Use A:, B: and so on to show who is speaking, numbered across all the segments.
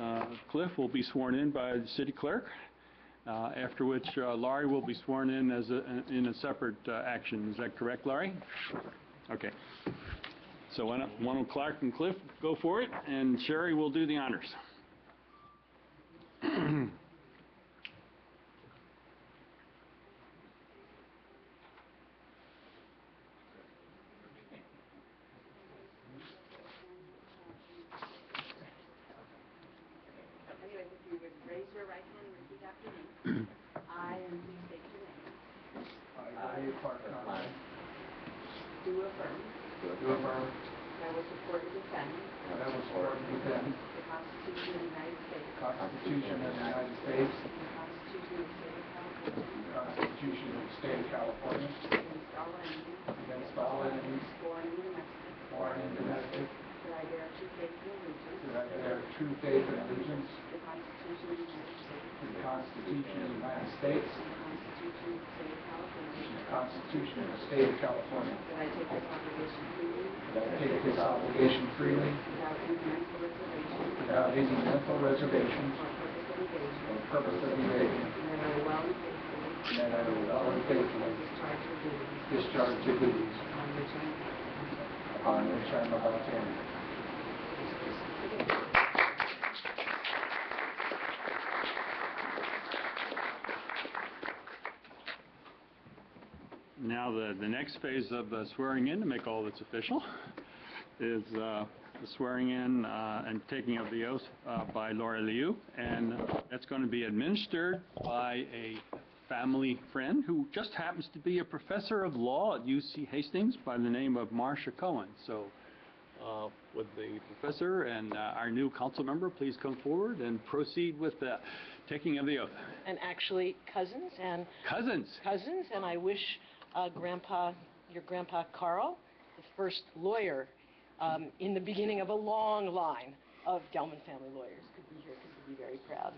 A: Uh, Cliff will be sworn in by the city clerk, uh, after which uh, Laurie will be sworn in as a, in a separate uh, action. Is that correct, Laurie? Okay. So why don't, why don't Clark and Cliff go for it, and Sherry will do the honors.
B: Anyway, if you would raise your right hand and repeat after me. I, and please state your name,
C: I, Clark Conrad,
B: do affirm
C: do affirm
B: that I will support and defend
C: that I will support and defend
B: the Constitution of the United States
C: the Constitution of the United States
B: and the Constitution of the State of California
C: and the Constitution of the State of
B: against
C: California
B: all enemies,
C: against all enemies,
B: foreign and domestic,
C: foreign and domestic,
B: that I bear true faith and allegiance
C: that I bear true faith and allegiance
B: to the Constitution of the United States
C: to the Constitution of the United States
B: and the Constitution of the State of California,
C: and the Constitution of the State of California,
B: that I take this obligation freely
C: that I take this obligation freely
B: without any mental reservation
C: without any mental reservation
B: or purpose of evasion,
C: or purpose of evasion,
B: and that I will well and faithfully
C: and that I will well and faithfully
B: discharge the duties
C: discharge the duties
B: on which I am.
C: upon which I am about to enter.
A: Now, the, the next phase of uh, swearing in, to make all this official, is uh, the swearing in uh, and taking of the oath uh, by Laura Liu, and that's going to be administered by a family friend who just happens to be a professor of law at UC Hastings by the name of Marcia Cohen. So, uh, would the professor and uh, our new council member please come forward and proceed with the taking of the oath?
D: and actually cousins and
A: Cousins,
D: cousins, and I wish uh, Grandpa, your Grandpa Carl, the first lawyer um, in the beginning of a long line of Gelman family lawyers, could be here because he'd be very proud.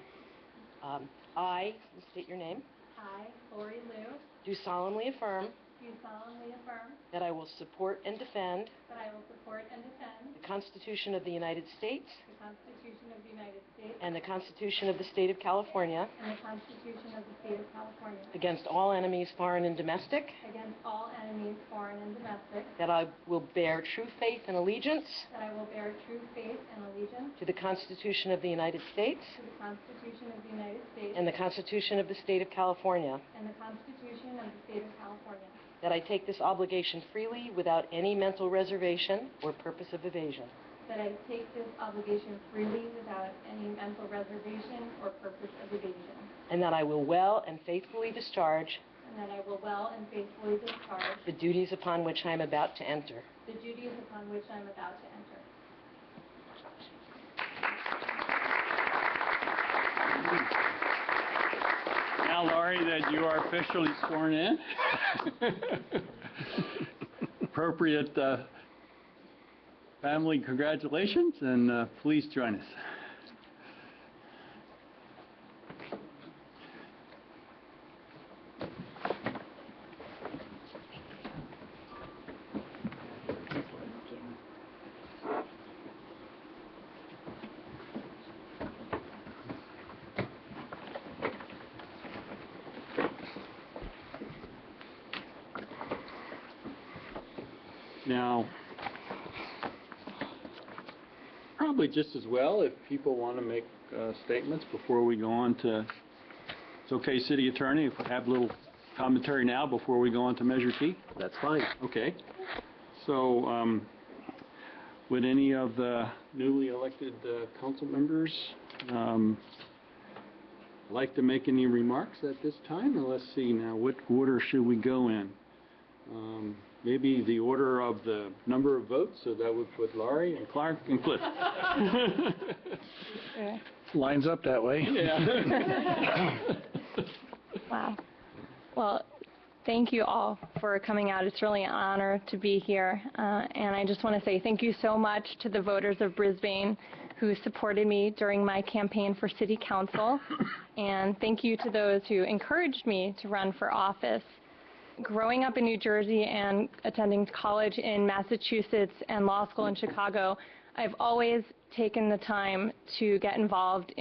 D: Um, I, you state your name,
E: I, Lori Liu,
D: do solemnly affirm
E: do solemnly affirm
D: that I will support and defend
E: that I will support and defend
D: the Constitution of the United States
E: the Constitution of the United States
D: and the Constitution of the State of California
E: and the Constitution of the State of California
D: against all enemies, foreign and domestic,
E: against all enemies, foreign and domestic,
D: that I will bear true faith and allegiance
E: that I will bear true faith and allegiance
D: To the Constitution of the United States
E: to the Constitution of the United States
D: and the Constitution of the State of California,
E: and the Constitution of the State of California,
D: that I take this obligation freely without any mental reservation or purpose of evasion,
E: that I take this obligation freely without any mental reservation or purpose of evasion,
D: and that I will well and faithfully discharge
E: and that I will well and faithfully discharge
D: the duties upon which I am about to enter.
E: the duties upon which I am about to enter.
A: Now, Laurie, that you are officially sworn in. Appropriate uh, family congratulations, and uh, please join us. Now, probably just as well if people want to make uh, statements before we go on to, it's okay, city attorney, if we have a little commentary now before we go on to Measure T?
F: That's fine.
A: Okay. So, um, would any of the newly elected uh, council members um, like to make any remarks at this time? Now, let's see now, what order should we go in? Um, Maybe the order of the number of votes, so that would put Laurie and Clark and Cliff.
F: Lines up that way.
A: Yeah.
G: Wow. Well, thank you all for coming out. It's really an honor to be here. Uh, and I just want to say thank you so much to the voters of Brisbane who supported me during my campaign for city council. and thank you to those who encouraged me to run for office. Growing up in New Jersey and attending college in Massachusetts and law school in Chicago, I've always taken the time to get involved